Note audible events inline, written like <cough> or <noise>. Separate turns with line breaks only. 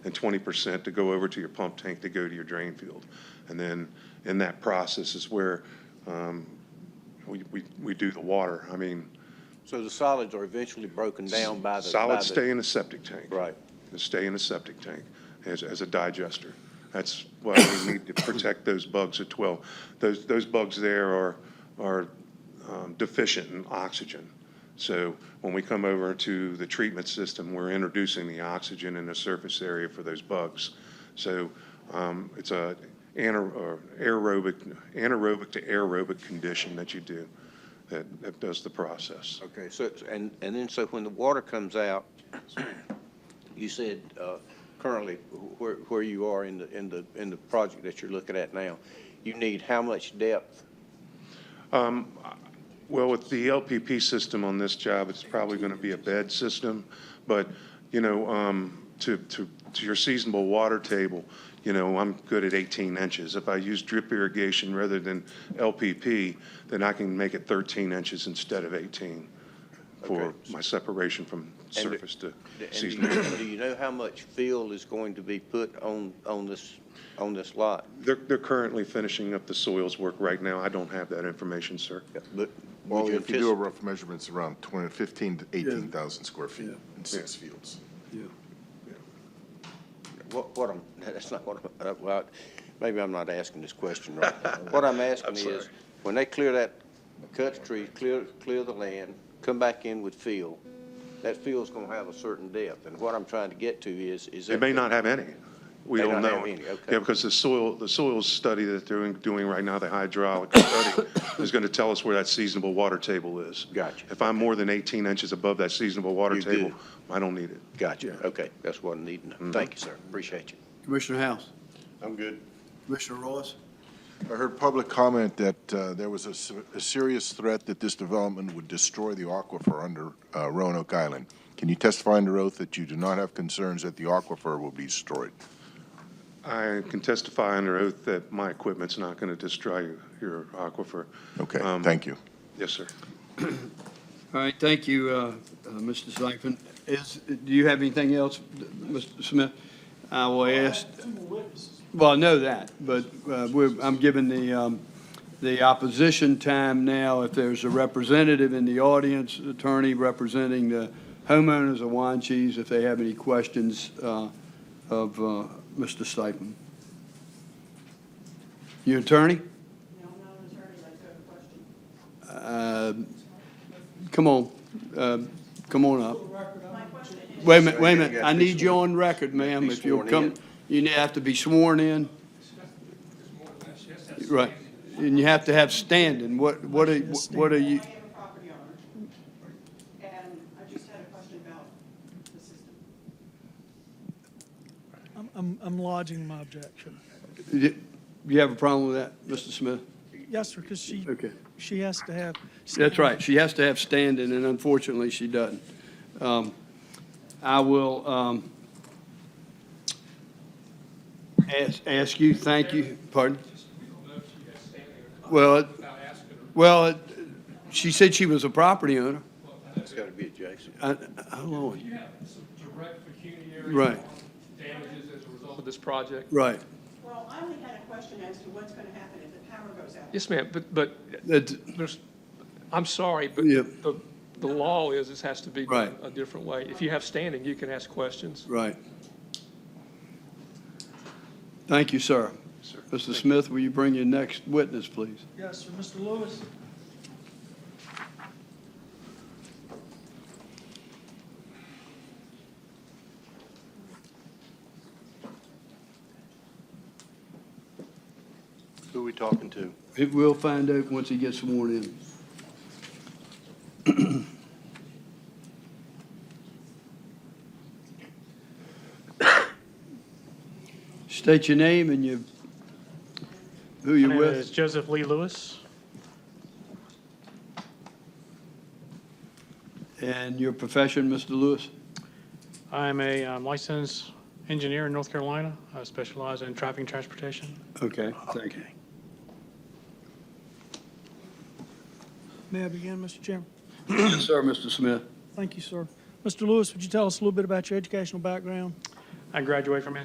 and twenty percent to go over to your pump tank to go to your drain field. And then in that process is where um, we, we, we do the water. I mean,
So the solids are eventually broken down by the. by the-
solids stay in a septic tank.
Right.
They stay in a septic tank as, as a digester. That's why we need to protect those bugs at well. Those, those bugs there are, are um, deficient in oxygen. So when we come over to the treatment system, we're introducing the oxygen in the surface area for those bugs. So um, it's a anaer- or aerobic, anaerobic to aerobic condition that you do that, that does the process.
Okay, so, it's- and, and then so when the water comes out, you said, uh, currently wh- where, where you are in the, in the, in the project that you're looking at now, you need how much depth?
Well, with the LPP system on this job, it's probably going to be a bed system, but, you know, um, to, to, to your seasonable water table, you know, I'm good at 18 inches. If I use drip irrigation rather than LPP, then I can make it 13 inches instead of 18 for
Okay.
my separation from
And do-
surface to
And do
seasonable.
you, do you know how much fill is going to be put on, on this, on this lot?
They're, they're currently finishing up the soils work right now. I don't have that information, sir.
But
Well,
would you
if you do a
anticipate,
rough measurement, it's around 20, 15 to 18,000 square feet in six fields.
Yeah,
what, what I'm, <laughs> that's not what I'm, uh, well, maybe I'm not asking this question right. What <laughs> I'm asking is, when they clear that, cut the trees, clear, clear the land, come back in with fill, that fill's gonna have a certain depth, and what I'm trying to get to is, is.
It may not have any. We
May
don't
not have
know.
any, okay.
Yeah, because the soil, the soils study that they're doing- doing right now, the hydraulic <coughs> study, is going to tell us where that seasonable water table is.
Gotcha.
If I'm more than 18 inches above that seasonable water
You
table,
do.
I don't need it.
Gotcha, okay, that's what I need to
Mm-hmm.
know. Thank you, sir, appreciate you.
Commissioner House,
I'm good.
Commissioner Royce,
I heard public comment that uh, there was a se- a serious threat that this development would destroy the aquifer under uh, Roanoke Island. Can you testify under oath that you do not have concerns that the aquifer will be destroyed?
I can testify under oath that my equipment's not going to destroy your- your aquifer.
Okay,
Um,
thank you.
Yes, sir.
All right, thank you, uh, uh, Mr. Sipin. Is, do you have anything else, Mr. Smith? I will ask. Well, I know that, but uh, we're, I'm giving the, um, the opposition time now. If there's a representative in the audience, attorney representing the homeowners of Wanches, if they have any questions uh, of uh, Mr. Sipin. Your attorney?
No, I'm not an attorney, I took a question.
Um, Come on, um, come on up.
My question is,
Wait a minute, wait a
You
minute,
gotta
I
be
need you on record, ma'am,
Be
if you'll
sworn
come,
in.
you have to be sworn in. Right, and you have to have standing, what, what are, what are
I
you,
am a property owner, and I just had a question about the system.
I'm- I'm, I'm lodging my objection.
you you have a problem with that, Mr. Smith?
Yes, sir, because she,
Okay.
she has to have.
That's right, she has to have standing, and unfortunately, she doesn't. Um, I will um, ask ask you, thank you, pardon? Well, it- well, it- she said she was a property owner.
It's gotta be adjacent.
I- I- How long?
You have some direct pecuniary.
Right.
Damages as a result of this project?
Right.
Well, I only had a question as to what's gonna happen if the power goes out.
Yes, ma'am, but, but
That-
there's, I'm sorry, but
Yeah.
the, the law is this has to be
Right.
done a different way. If you have standing, you can ask questions.
Right. Thank you, sir. Mr. Smith, will you bring your next witness, please?
Yes, sir, Mr. Lewis.
Who are we talking to?
We'll find out once he gets sworn in. State your name and you, who
My
you're
name is
with.
Joseph Lee Lewis.
And your profession, Mr. Lewis?
I'm a um, licensed engineer in North Carolina. I specialize in traffic and transportation.
Okay, thank you.
May I begin, Mr. Chairman?
Yes, sir, Mr. Smith.
Thank you, sir. Mr. Lewis, would you tell us a little bit about your educational background?
I graduated from